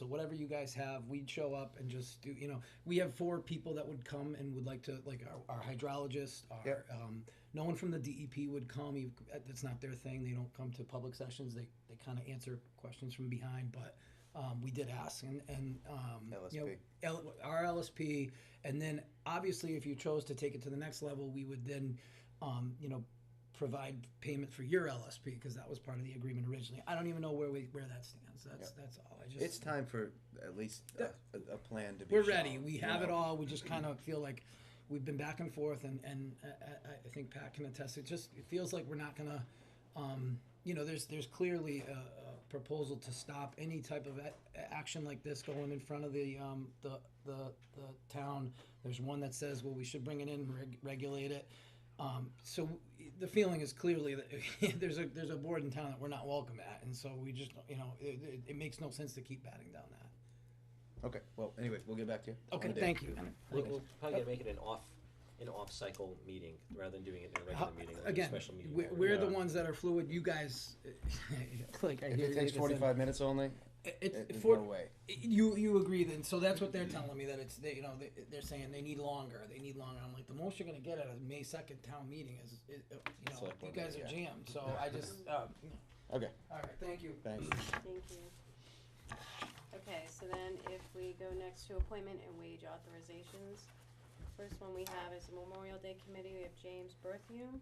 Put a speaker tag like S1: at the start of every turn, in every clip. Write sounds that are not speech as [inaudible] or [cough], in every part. S1: So whatever you guys have, we'd show up and just do. You know, we have four people that would come and would like to, like our, our hydrologist. Our,
S2: Yep.
S1: um, no one from the DEP would come. You- That's not their thing. They don't come to public sessions. They they kind of answer questions from behind. But um, we did ask and and um, you know,
S2: LSP.
S1: L, our LSP, and then obviously if you chose to take it to the next level, we would then, um, you know. Provide payment for your LSP because that was part of the agreement originally. I don't even know where we where that stands. That's that's all. I just
S2: It's time for at least a, a- a plan to be.
S1: we're ready.
S2: shown,
S1: We
S2: you
S1: have it
S2: know?
S1: all. We just kind of feel like we've been back and forth, and and I, I- I think Pat can attest. It just it feels like we're not gonna, um, you know, there's there's clearly a, a proposal to stop any type of a- a- action like this going in front of the um, the, the the town. There's one that says, well, we should bring it in, reg- regulate it. Um, so the feeling is clearly that [laughs] there's a there's a board in town that we're not welcome at, and so we just you know it, it, it makes no sense to keep batting down that.
S2: Okay. Well, anyway, we'll get back to you.
S1: Okay,
S2: One day.
S1: thank you.
S3: We'll, we'll probably gotta make it an off, an off-cycle meeting, rather than doing it in a
S1: How-
S3: regular meeting, like a
S1: Again,
S3: special meeting.
S1: we're,
S3: or-
S1: we're the
S3: Yeah.
S1: ones that are fluid. You guys, [laughs] like I
S2: If
S1: hear
S2: it
S1: you
S2: takes
S1: just said-
S2: forty-five minutes only,
S1: It-
S2: it-
S1: It's
S2: there's
S1: for,
S2: no way.
S1: you you agree then? So that's what they're telling me that it's they you know they, they're saying they need longer. They need longer. I'm like the most you're gonna get at a May second town meeting is, is uh, you know
S2: Select
S1: you
S2: board
S1: guys are
S2: meeting,
S1: jammed.
S2: [laughs]
S1: So I just um,
S2: Okay.
S1: all right. Thank you.
S2: Thanks.
S4: Thank you. Okay, so then if we go next to appointment and wage authorizations, first one we have is Memorial Day Committee, we have James Bertheum.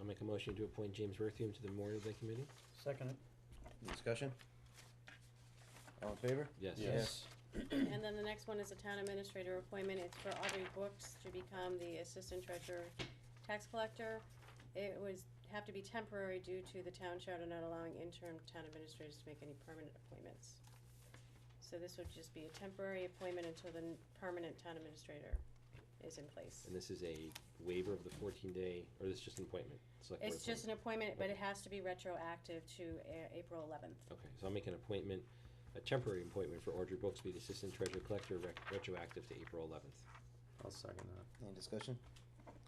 S3: I'll make a motion to appoint James Bertheum to the Memorial Day Committee.
S5: Second,
S2: Discussion. All in favor?
S3: Yes.
S2: Yes.
S4: And then the next one is a town administrator appointment, it's for Audrey Brooks to become the Assistant Treasurer Tax Collector. It was, have to be temporary due to the town charter not allowing interim town administrators to make any permanent appointments. So this would just be a temporary appointment until the n- permanent town administrator is in place.
S3: And this is a waiver of the fourteen-day, or this is just an appointment? select board
S4: It's just an appointment, but it has to be retroactive to A- April eleventh.
S3: appointment? Okay, so I'll make an appointment, a temporary appointment for Audrey Brooks to be the Assistant Treasurer Collector, rec- retroactive to April eleventh.
S5: I'll second that,
S2: Any discussion?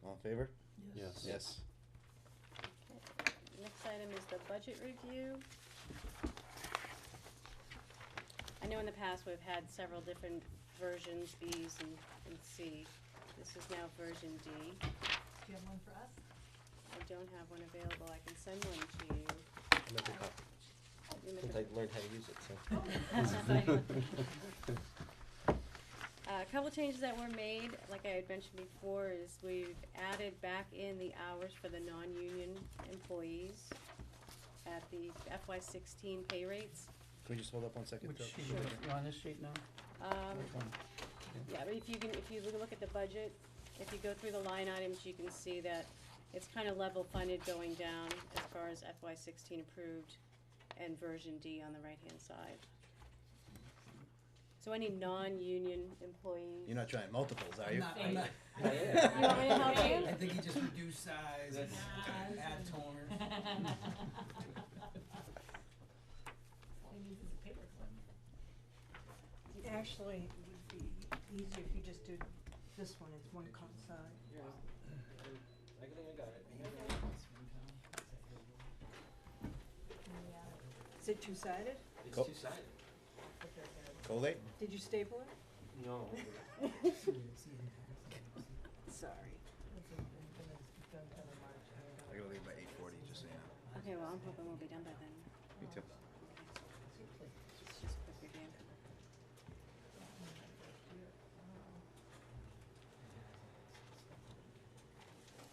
S2: All in favor?
S5: yes.
S2: Yes.
S4: Next item is the budget review. I know in the past we've had several different versions, Bs and, and C. This is now version D.
S6: Do you have one for us?
S4: I don't have one available, I can send one to you.
S3: Make a copy.
S4: You make
S3: Since
S4: a-
S3: I learned how to use it, so.
S4: [laughs] Uh, A couple changes that were made, like I had mentioned before, is we've added back in the hours for the non-union employees at the FY sixteen pay rates.
S2: Can we just hold up one second?
S5: Which
S2: Doug?
S5: sheet, is it? You're on this sheet now?
S4: Um,
S5: Which one?
S4: yeah, but if you can, if you look at the budget, if you go through the line items, you can see that it's kind of level funded going down as far as FY sixteen approved and version D on the right-hand side. So any non-union employees? [laughs]
S2: You're not trying multiples, are
S1: I'm
S2: you?
S1: not, I'm not,
S4: You want me to help you?
S1: I think he just reduced size, and
S6: Size.
S1: add toner.
S3: [laughs]
S6: [laughs]
S4: [laughs]
S1: [laughs]
S6: All he needs is a paper clip.
S7: Actually, it would be easier if you just did this one, it's one cut side.
S3: I think I got it.
S6: Yeah.
S7: Is it two-sided?
S2: It's Cool.
S3: two-sided.
S2: Colate?
S7: Did you staple it?
S3: No.
S7: Sorry.
S2: I gotta leave by eight forty, just so you know.
S4: Okay, well, I'm hoping we'll be done by then.
S2: Me too.
S4: It's just a quick review.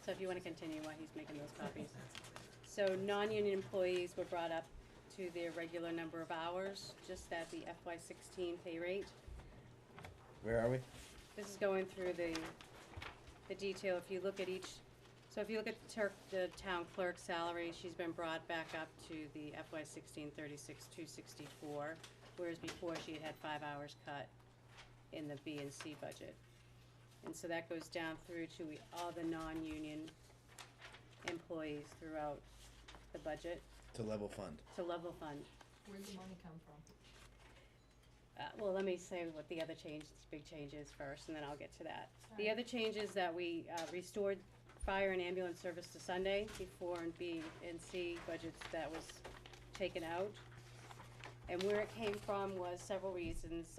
S4: So if you wanna continue while he's making those copies. So non-union employees were brought up to their regular number of hours, just at the FY sixteen pay rate.
S2: Where are we?
S4: This is going through the, the detail, if you look at each, so if you look at the ter- the town clerk's salary, she's been brought back up to the FY sixteen thirty-six, two sixty-four, whereas before she had had five hours cut in the B and C budget. And so that goes down through to we- all the non-union employees throughout the budget
S2: To level fund.
S4: to level fund.
S6: Where'd the money come from?
S4: Uh, well, let me say what the other change, big change is first, and then I'll get to that. The
S6: Alright.
S4: other change is that we, uh, restored fire and ambulance service to Sunday before in B and C budgets that was taken out. And where it came from was several reasons.